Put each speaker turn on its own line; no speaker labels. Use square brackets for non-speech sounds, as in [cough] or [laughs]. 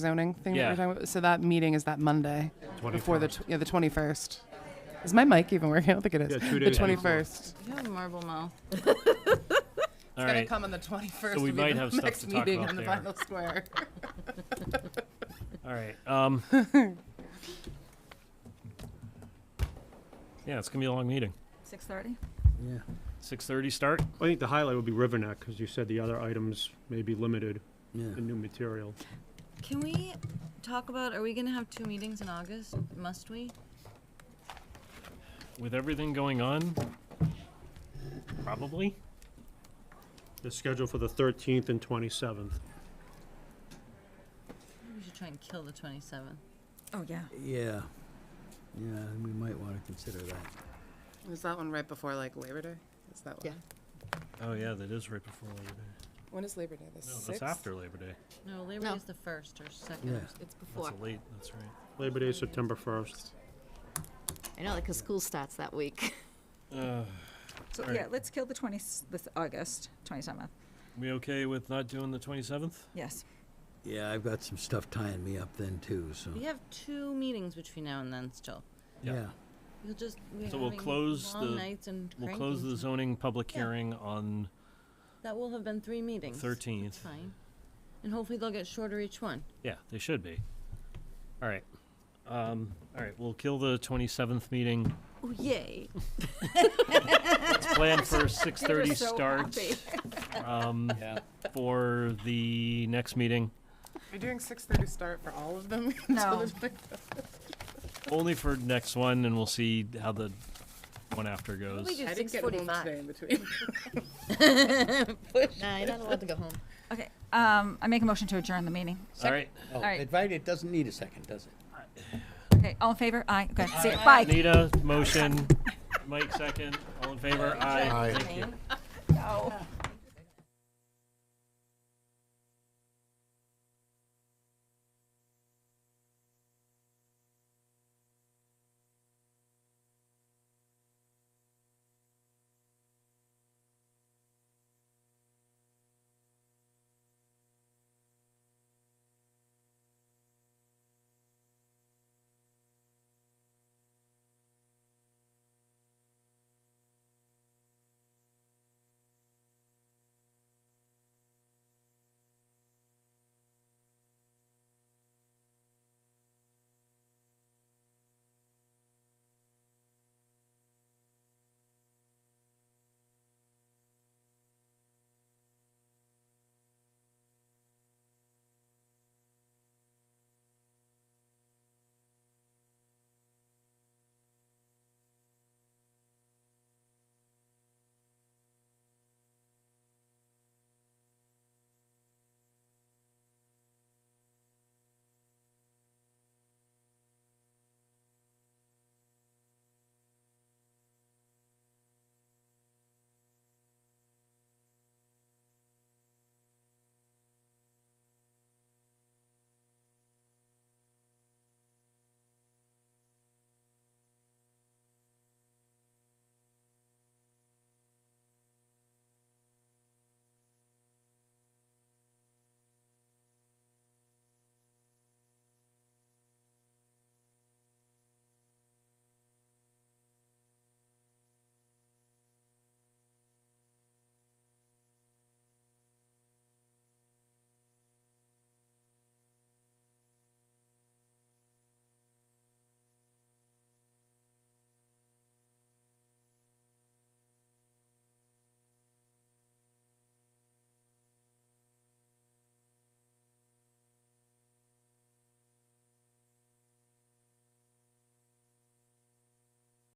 zoning thing that
Yeah.
we're talking about. So that meeting is that Monday before the
21st.
tw- yeah the twenty first. Is my mic even working? I don't think it is.
Yeah, two
the
days
twenty
before.
first.
You have marble mouth.
All
Gonna
right.
come on the twenty first.
So we might have stuff
next
to talk
meeting
about
in the
there.
final square.
All right. Um,
[laughs]
yeah, it's gonna be a long meeting.
Six thirty.
Yeah.
Six thirty start.
I think the highlight would be River Neck, because you said the other items may be limited
Yeah.
in new material.
Can we talk about? Are we gonna have two meetings in August? Must we?
With everything going on, probably.
They're scheduled for the 13th and 27th.
Maybe We should try and kill the twenty seventh.
Oh, yeah.
Yeah. Yeah, we might want to consider that.
Is that one right before like Labor Day? Is that one?
Yeah.
Oh yeah, that is right before Labor Day.
When is Labor Day? The
No,
sixth.
that's after Labor Day.
No, Labor
No.
Day is the first or second.
Yeah.
It's
That's
before.
a late. That's right.
Labor Day, is September 1st.
I know, because school starts that week.
Uh,
So,
All
yeah,
right.
let's kill the 20, this August 27th.
we okay with not doing the twenty seventh?
Yes.
Yeah, I've got some stuff tying me up then too, so,
We have two meetings between now and then still.
Yeah.
yeah.
We'll just. We're
So we'll
having
close the-
long nights and
We'll close the
crankings.
zoning public
Yeah.
hearing on
That will have been three meetings. It's
thirteenth.
Fine. And hopefully they'll get shorter each one.
Yeah, they should be. All right. Um, all right. We'll kill the twenty seventh
[laughs]
meeting.
Oh yay!
It's planned for six thirty
so
start.
happy.
Um, for the next meeting.
Are you doing six thirty start for all of them? [laughs]
No.
Only for next one, and we'll see how the one after
Well,
goes.
we
I didn't get home today in between.
Nah, you're not allowed to go home.
Okay, um, I make a motion to adjourn the meeting.
All right,
Oh,
right.
advited, it doesn't need a second, does it?
Okay, all in favor? Aye, good, see you, bye.
Nita, motion. Mike, second. All in favor? Aye. Thank you.
No.